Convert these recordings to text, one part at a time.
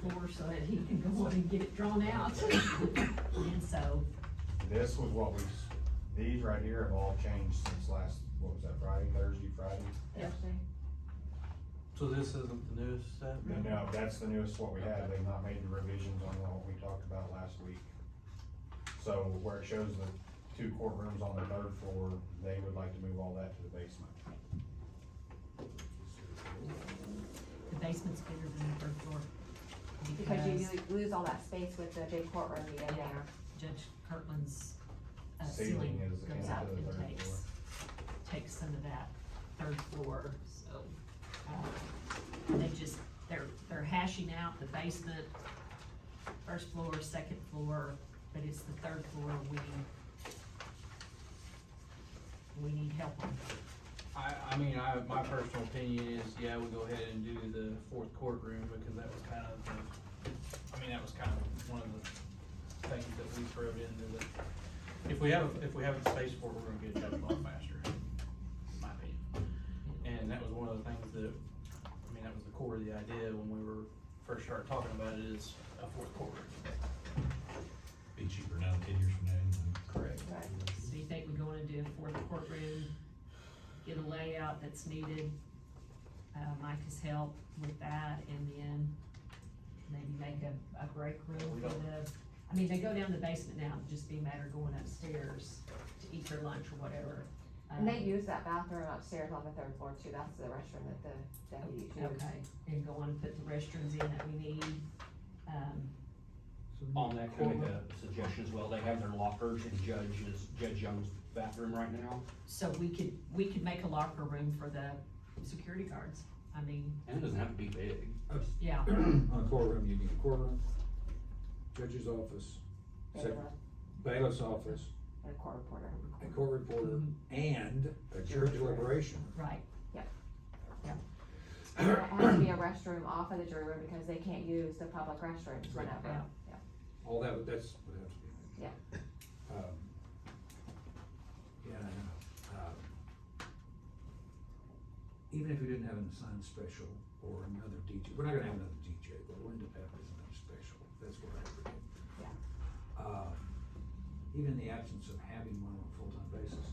floor so that he can go on and get it drawn out. And so, This was what we, these right here have all changed since last, what was that, Friday, Thursday, Friday? Yes. So this isn't the newest set? And now, that's the newest what we had, they've not made the revisions on what we talked about last week. So where it shows the two courtrooms on the third floor, they would like to move all that to the basement. the basement's bigger than the third floor. Because you Because lo- lose all that space with the big courtroom you have there. Judge Kirkland's uh, Ceiling ceiling is goes into out the and third floor. takes, takes some of that third floor, so. uh, They just, they're, they're hashing out the basement, first floor, second floor, but it's the third floor we, we need help on. I, I mean, I, my personal opinion is, yeah, we go ahead and do the fourth courtroom, because that was kind of the, I mean, that was kind of one of the things that we threw into the, if we have, if we have the space for it, we're gonna get it done a lot faster, in my opinion. And that was one of the things that, I mean, that was the core of the idea when we were first started talking about it, is a fourth courtroom. Be cheaper now, ten years from now. anyway. Correct. Right. So you think we're gonna do a fourth courtroom, get a layout that's needed, uh, Mike has helped with that, and then maybe make a, a break room for the, I mean, they go down the basement now, it'd just be a matter of going upstairs to eat their lunch or whatever. And they Um, use that bathroom upstairs on the third floor too, that's the restroom that the deputies use. Um, Okay, and go on and put the restrooms in that we need, um, Mm-hmm. On that, can I make a suggestion as well? They have their lockers in Judge's, Judge Young's bathroom right now. so we could, we could make a locker room for the security guards, I mean, And it doesn't have to be big. yeah, On a courtroom, you need a courtroom, judge's office, They sec- have a- bailiff's office, And a court reporter. a court reporter, and a jury deliberation. right. And It has to be a restroom off of the jury room because they can't use the public restrooms Right. whenever. Yeah. Yeah. All that, would- that's what has to be. in it. Um, Yeah, I know. Um, Even if we didn't have an assigned special or another DJ, we're not gonna have another DJ, but we'll end up having another special, that's what I forget. Um, Even in the absence of having one on a full-time basis,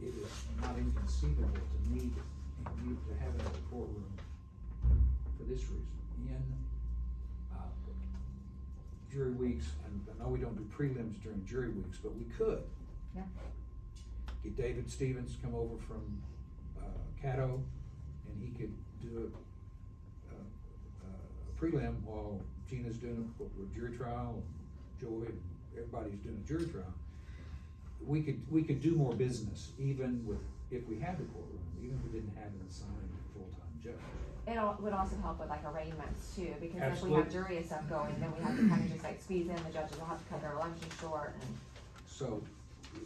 it is not inconceivable to need, and need to have another courtroom for this reason, in, uh, jury weeks, and I know we don't do prelims during jury weeks, but we could. Yeah. Get David Stevens to come over from, uh, Caddo, and he could do a, a- a prelim while Gina's doing a, a jury trial, Joy, and everybody's doing a jury trial. We could, we could do more business even with, if we had the courtroom, even if we didn't have an assigned full-time judge. It al- would also help with like arraignments too, because if we have Absolutely. jury and stuff going, then we have to kind of just like squeeze in, the judges will have to cut their lunches short and. So,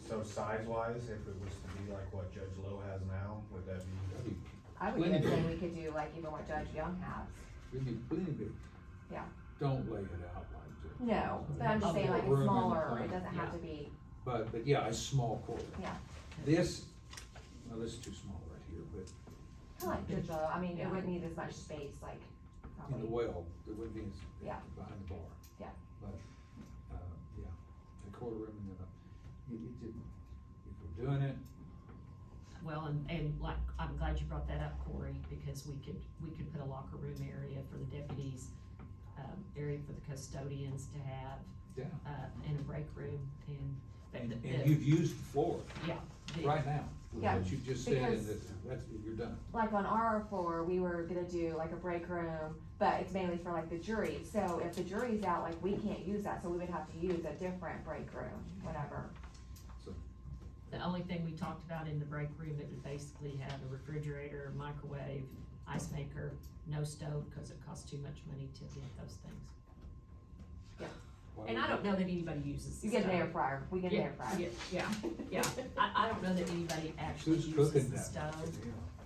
So size wise, if it was to be like what Judge Lowe has now, would that be? that'd be, I would even Linda. say we could do like even what Judge Young has. we'd be plenty big. Yeah. Don't lay it out like this. No, but I'm just saying like Room in the smaller, it front, doesn't have yeah. to be, But, but yeah, a small courtroom. Yeah. This, well, this is too small right here, but I like Judge Lowe, I mean, Yeah. it wouldn't need as much space, like, in the probably, well, it wouldn't be as, Yeah. behind the bar. Yeah. But, uh, yeah, a courtroom and then a, it, it didn't, if we're doing it, Well, and, and like, I'm glad you brought that up, Corey, because we could, we could put a locker room area for the deputies, um, area for the custodians to have, yeah. uh, and a break room and. but And, the- and the- you've used the floor Yeah. the- right now, with Yeah, what you just said, and because- that- that's, you're done. like on our floor, we were gonna do like a break room, but it's mainly for like the jury, so if the jury's out, like, we can't use that, so we would have to use a different break room, whatever. The only thing we talked about in the break room, it would basically have a refrigerator, microwave, ice maker, no stove, cause it costs too much money to get those things. Why And would- I don't know that anybody uses. the You get an stove. air fryer, we get an Yeah, air fryer. yeah, Yeah, yeah, I, I don't know that anybody actually Who's cooking uses the that? stove.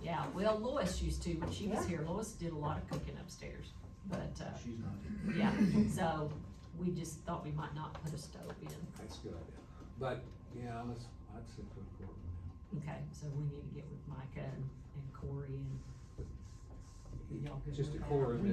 Yeah, Yeah, well, Lois used to, when she was Yeah. here, Lois did a lot of cooking upstairs, but, uh, She's not, yeah, so we just thought we might not put a stove in. that's a good idea, but, yeah, let's, I'd say for a courtroom now. Okay, so we need to get with Micah and and Corey and. y'all good Just a with that? courtroom